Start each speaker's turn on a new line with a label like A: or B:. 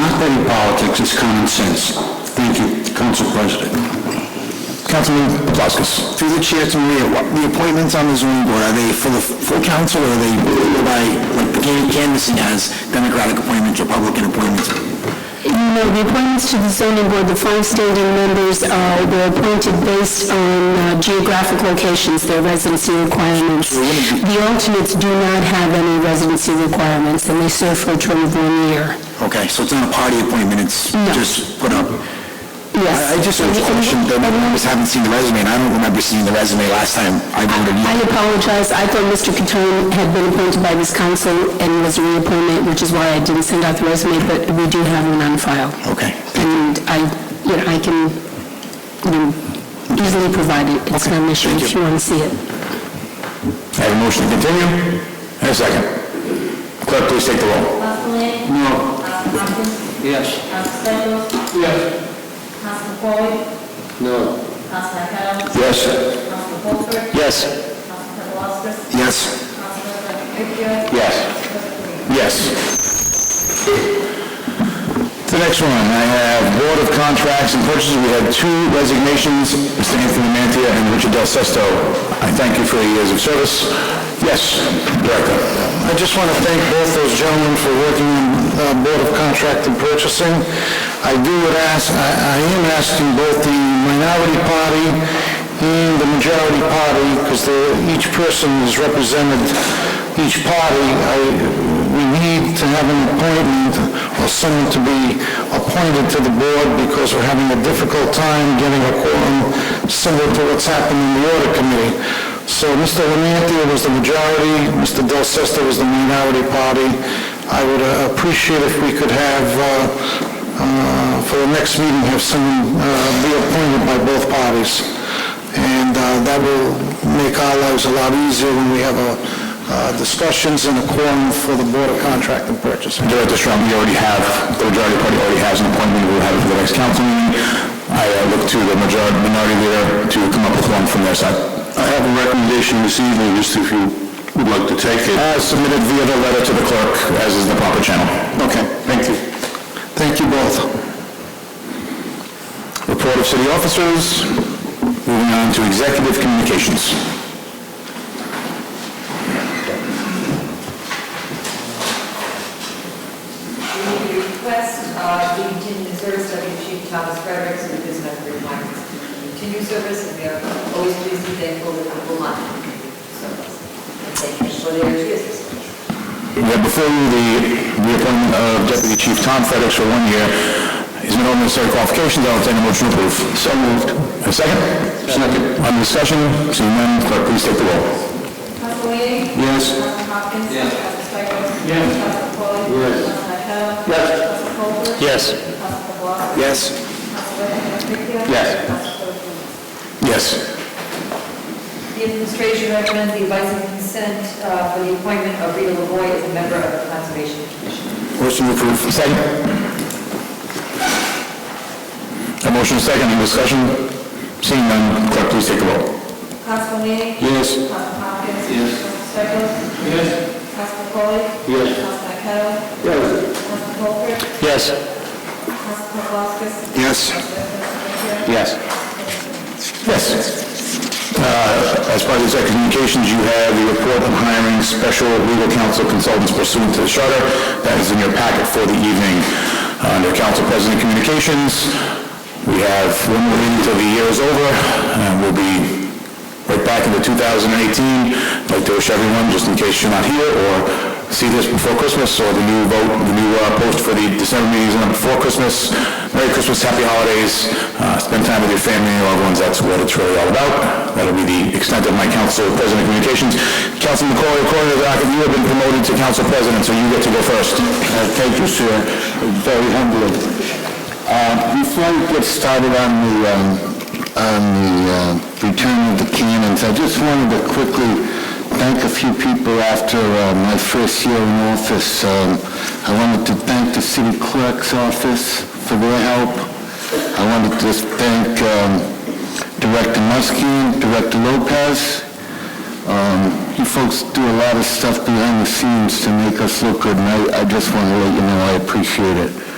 A: not petty politics, it's common sense. Thank you, Council President.
B: Councilman Plaskas. Through the chair to Maria, what- the appointments on the zoning board, are they for the full council or are they by, like, the can- canvassing as Democratic appointments, Republican appointments?
C: No, the appointments to the zoning board, the five standing members uh, were appointed based on uh, geographic locations, their residency requirements. The alternates do not have any residency requirements, and they serve for a term of one year.
B: Okay, so it's not a party appointment, it's
C: No.
B: just put up?
C: Yes.
B: I I just have a question, though, I just haven't seen the resume, and I don't remember seeing the resume last time I voted.
C: I
B: either.
C: apologize, I thought Mr. Catone had been appointed by this council and was a reappointment, which is why I didn't send out the resume, but we do have one on file.
B: Okay.
C: And I, you know, I can, you know, easily provide it, it's not an issue if you want to see it.
B: I have a motion to continue, and a second. Clerk, please take the roll.
D: Councilman?
A: No.
D: Council Hopkins?
A: Yes.
D: Council Stengel?
A: Yes.
D: Council Foley?
A: No.
D: Council Marquardt?
B: Yes.
D: Council Holford?
B: Yes.
D: Council Paplaskas?
B: Yes.
D: Council President Victor?
B: Yes. Yes. The next one, I have Board of Contracts and Purchases. We had two resignations, Mr. Anthony Mantia and Richard Del Sesto. I thank you for your years of service. Yes, Director.
E: I just want to thank both those gentlemen for working on uh, Board of Contract and Purchasing. I do would ask, I I am asking both the minority party and the majority party, because each person is represented, each party, I- we need to have an appointment or someone to be appointed to the board because we're having a difficult time getting a quorum similar to what's happened in the audit committee. So Mr. Lemantia was the majority, Mr. Del Sesto was the minority party. I would uh, appreciate if we could have, uh, uh, for the next meeting, have someone uh, be appointed by both parties. And uh, that will make our lives a lot easier when we have uh, uh, discussions and a quorum for the Board of Contract and Purchasing.
B: Director Strong, we already have, the majority party already has an appointment. We'll have it for the next council meeting. I uh, look to the majority, minority leader to come up with one from their side.
A: I have a recommendation this evening, just if you would like to take it.
B: As submitted via the letter to the clerk, as is the proper channel.
A: Okay, thank you.
B: Thank you both. Report of city officers. Moving on to executive communications.
F: We request uh, the continued service of Chief Thomas Fredericks with his medical requirements. Continued service, and we are always pleased and thankful that people want service. And Thank you for their service.
B: We have before you the reappointment of Deputy Chief Tom Fredericks for one year. He's met all necessary qualifications, I'll entertain a motion to approve. So moved. A second? Second. On discussion, seeing none, clerk, please take the roll.
D: Council Lee?
B: Yes.
D: Council Hopkins? Yes. Council Stengel? Yes. Council Foley? Yes. Council Marquardt? Yes. Council Holford?
B: Yes.
D: Council Paplaskas?
B: Yes.
D: Council President Victor? Council President-
B: Yes. Yes.
F: The administration recommends the advice and consent uh, for the appointment of Rita Lavoy as a member of the Conservation Commission.
B: Motion to approve. Second. A motion second, any discussion? Seeing none, clerk, please take the roll.
D: Council Lee?
B: Yes.
D: Council Hopkins? Yes. Council Stengel? Yes. Council Foley? Yes. Council Marquardt? Yes. Council Holford?
B: Yes.
D: Council Paplaskas?
B: Yes.
D: Council President Victor?
B: Yes. Yes. Uh, As part of the executive communications, you have the report on hiring special legal counsel consultants pursuant to the charter. That is in your packet for the evening. Uh, Under Council President Communications, we have one more meeting until the year is over, and we'll be right back into 2018. I'd like to wish everyone, just in case you're not here or see this before Christmas, or the new vote, the new uh, post for the December meetings on before Christmas, Merry Christmas, Happy Holidays, uh, spend time with your family and loved ones, that's what it's really all about. That'll be the extent of my council president communications. Councilman McCoy, according to the docket, you have been promoted to council president, so you get to go first. Uh, Thank you, sir. Very humbling. Uh, Before we get started on the, um, on the uh, return of the cannons, I just wanted to quickly thank a few people after uh, my first year in office. Um, I wanted to thank the city clerk's office for their help. I wanted to thank um, Director Muskie, Director Lopez. Um, You folks do a lot of stuff behind the scenes to make us look good, and I- I just want to let you know I appreciate it.